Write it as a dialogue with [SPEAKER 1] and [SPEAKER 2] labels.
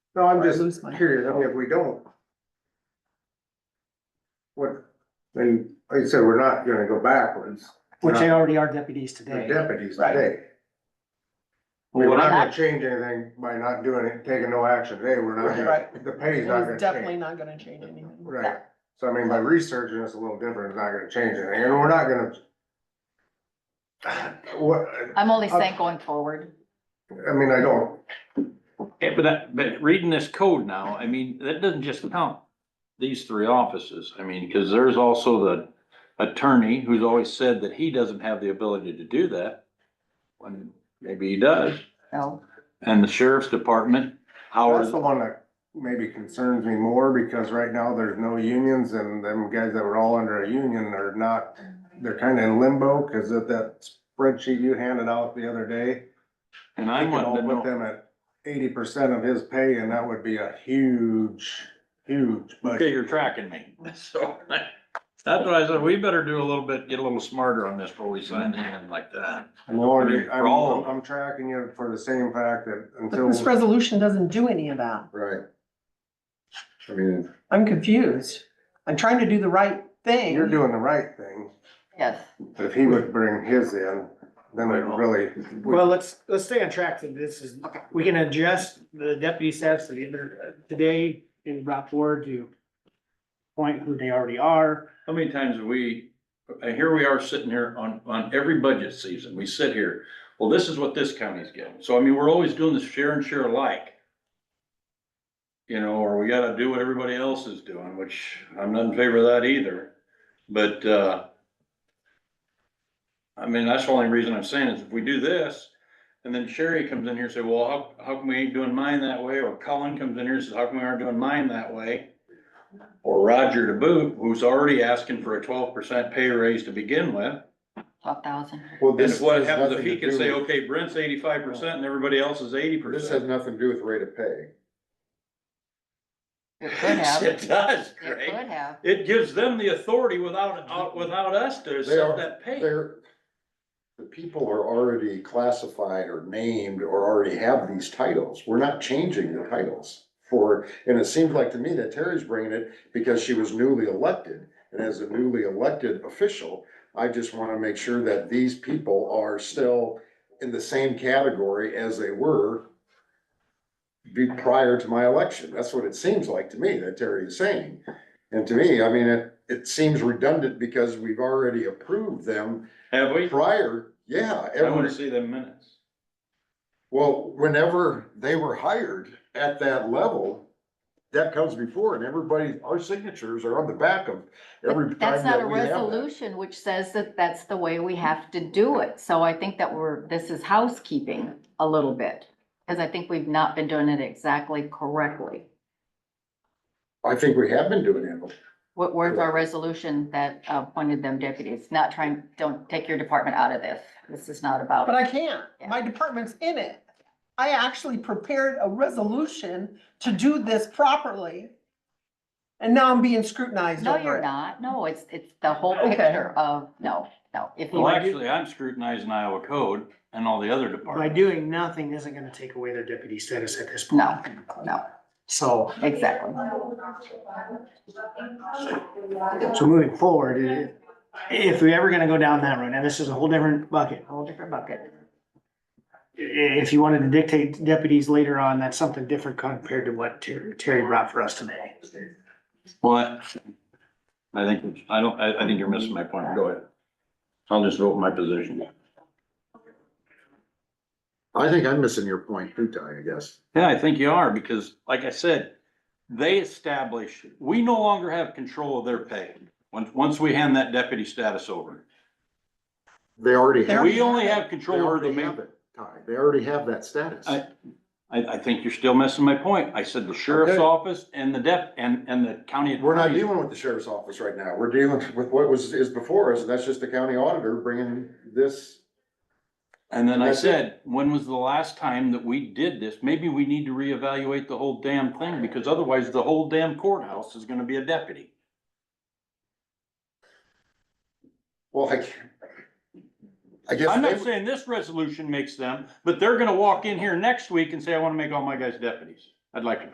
[SPEAKER 1] No, I'm
[SPEAKER 2] Or I
[SPEAKER 1] just
[SPEAKER 2] lose mine.
[SPEAKER 1] curious, I mean, if we don't. What, and like I said, we're not gonna go backwards,
[SPEAKER 3] Which they already are deputies
[SPEAKER 1] the
[SPEAKER 3] today.
[SPEAKER 1] deputies
[SPEAKER 3] Right.
[SPEAKER 1] today.
[SPEAKER 3] Well,
[SPEAKER 1] We're
[SPEAKER 3] what
[SPEAKER 1] not
[SPEAKER 3] I-
[SPEAKER 1] gonna change anything by not doing it, taking no action today, we're not, gonna-
[SPEAKER 3] Right.
[SPEAKER 1] the pay's not gonna
[SPEAKER 2] It's definitely
[SPEAKER 1] change.
[SPEAKER 2] not gonna change anything.
[SPEAKER 1] Right, so I mean, by researching, it's a little different, it's not gonna change anything, and we're not gonna. What,
[SPEAKER 4] I'm only saying going forward.
[SPEAKER 1] I mean, I don't,
[SPEAKER 5] Yeah, but that, but reading this code now, I mean, that doesn't just count these three offices. I mean, cause there's also the attorney who's always said that he doesn't have the ability to do that. When maybe he does.
[SPEAKER 4] No.
[SPEAKER 5] And the sheriff's department,
[SPEAKER 1] that's
[SPEAKER 5] Howard,
[SPEAKER 1] the one that maybe concerns me more, because right now there's no unions, and them guys that were all under a union are not they're kind of in limbo because of that spreadsheet you handed out the other day.
[SPEAKER 5] and
[SPEAKER 1] I
[SPEAKER 5] I'm
[SPEAKER 1] can all
[SPEAKER 5] wanting to
[SPEAKER 1] put
[SPEAKER 5] know.
[SPEAKER 1] them at eighty percent of his pay and that would be a huge, huge
[SPEAKER 5] Okay,
[SPEAKER 1] budget.
[SPEAKER 5] you're tracking me. So that's what I said, we better do a little bit, get a little smarter on this before we sign in like that.
[SPEAKER 1] I'm wondering,
[SPEAKER 5] For
[SPEAKER 1] I'm,
[SPEAKER 5] all of
[SPEAKER 1] I'm
[SPEAKER 5] them.
[SPEAKER 1] I'm tracking you for the same fact that
[SPEAKER 2] But this
[SPEAKER 1] until.
[SPEAKER 2] resolution doesn't do any of that.
[SPEAKER 1] Right. I mean,
[SPEAKER 2] I'm confused. I'm trying to do the right thing.
[SPEAKER 1] you're doing the right thing.
[SPEAKER 4] Yes.
[SPEAKER 1] but If he would bring his in, then it really,
[SPEAKER 3] Well, let's, let's stay on track to this is, we can adjust the deputy status to the other, today in brought forward to point who they already are.
[SPEAKER 5] How many times have we, uh, here we are sitting here on, on every budget season, we sit here, well, this is what this county's getting, so I mean, we're always doing this share and share alike. You know, or we gotta do what everybody else is doing, which I'm not in favor of that either, but, uh. I mean, that's the only reason I'm saying is if we do this, and then Sherry comes in here and say, well, how, how come we ain't doing mine that way, or Colin comes in here and says, how come we aren't doing mine that way? or Roger to boot, who's already asking for a twelve percent pay raise to begin with.
[SPEAKER 4] Twelve thousand.
[SPEAKER 6] Well,
[SPEAKER 5] And
[SPEAKER 6] this.
[SPEAKER 5] if what
[SPEAKER 6] has
[SPEAKER 5] happens if
[SPEAKER 6] nothing
[SPEAKER 5] he
[SPEAKER 6] to
[SPEAKER 5] can
[SPEAKER 6] do
[SPEAKER 5] say,
[SPEAKER 6] with-
[SPEAKER 5] okay, Brent's eighty-five percent and everybody else is eighty
[SPEAKER 6] This has
[SPEAKER 5] percent.
[SPEAKER 6] nothing to do with rate of pay.
[SPEAKER 4] It could have, it
[SPEAKER 5] It does, Craig.
[SPEAKER 4] could have.
[SPEAKER 5] It gives them the authority without, out- without us to
[SPEAKER 6] They
[SPEAKER 5] set
[SPEAKER 6] are-
[SPEAKER 5] that pay.
[SPEAKER 6] They're, the people are already classified or named or already have these titles. We're not changing the titles for, and it seems like to me that Terry's bringing it because she was newly elected. And as a newly elected official, I just want to make sure that these people are still in the same category as they were be prior to my election. That's what it seems like to me that Terry is saying. And to me, I mean, it, it seems redundant because we've already approved them
[SPEAKER 5] Have we?
[SPEAKER 6] prior, yeah.
[SPEAKER 5] I wanna
[SPEAKER 6] every-
[SPEAKER 5] see them minutes.
[SPEAKER 6] Well, whenever they were hired at that level, that comes before and everybody, our signatures are on the back of every
[SPEAKER 4] But
[SPEAKER 6] time
[SPEAKER 4] That's not a
[SPEAKER 6] that we have that.
[SPEAKER 4] resolution which says that that's the way we have to do it. So I think that we're, this is housekeeping a little bit. Cause I think we've not been doing it exactly correctly.
[SPEAKER 6] I think we have been doing it.
[SPEAKER 4] What, where's our resolution that appointed them deputies? Not trying, don't take your department out of this. This is not about.
[SPEAKER 2] But I can't. My department's in it. I actually prepared a resolution to do this properly. And now I'm being scrutinized
[SPEAKER 4] No,
[SPEAKER 2] over
[SPEAKER 4] you're
[SPEAKER 2] it.
[SPEAKER 4] not. No, it's, it's the whole
[SPEAKER 2] Okay.
[SPEAKER 4] picture of, no, no. If you
[SPEAKER 5] Well, actually, I'm scrutinizing Iowa code and all the other
[SPEAKER 3] By
[SPEAKER 5] departments.
[SPEAKER 3] doing nothing isn't gonna take away their deputy status at this point.
[SPEAKER 4] No, no,
[SPEAKER 3] So,
[SPEAKER 4] exactly.
[SPEAKER 3] so moving forward, i- if we're ever gonna go down that road, and this is a whole different bucket.
[SPEAKER 4] Whole different bucket.
[SPEAKER 3] i- if you wanted to dictate deputies later on, that's something different compared to what Ter- Terry brought for us today.
[SPEAKER 5] What? I think, I don't, I, I think you're missing my point. Go ahead. I'll just vote my position.
[SPEAKER 6] I think I'm missing your point too, Ty, I guess.
[SPEAKER 5] Yeah, I think you are, because like I said, they establish, we no longer have control of their pay. Once, once we hand that deputy status over,
[SPEAKER 6] They already have.
[SPEAKER 5] we only have
[SPEAKER 6] They
[SPEAKER 5] control over the
[SPEAKER 6] already
[SPEAKER 5] main.
[SPEAKER 6] have it, Ty. They already have that status.
[SPEAKER 5] I- I, I think you're still missing my point. I said the sheriff's
[SPEAKER 6] Okay.
[SPEAKER 5] office and the dep, and, and the county.
[SPEAKER 6] We're not
[SPEAKER 5] attorney's-
[SPEAKER 6] dealing with the sheriff's office right now. We're dealing with what was, is before us, and that's just the county auditor bringing this.
[SPEAKER 5] And then I
[SPEAKER 6] That's it.
[SPEAKER 5] said, when was the last time that we did this? Maybe we need to reevaluate the whole damn thing, because otherwise the whole damn courthouse is gonna be a deputy.
[SPEAKER 6] Well, I can't. I guess.
[SPEAKER 5] I'm
[SPEAKER 6] they
[SPEAKER 5] not
[SPEAKER 6] would-
[SPEAKER 5] saying this resolution makes them, but they're gonna walk in here next week and say, I wanna make all my guys deputies. I'd like to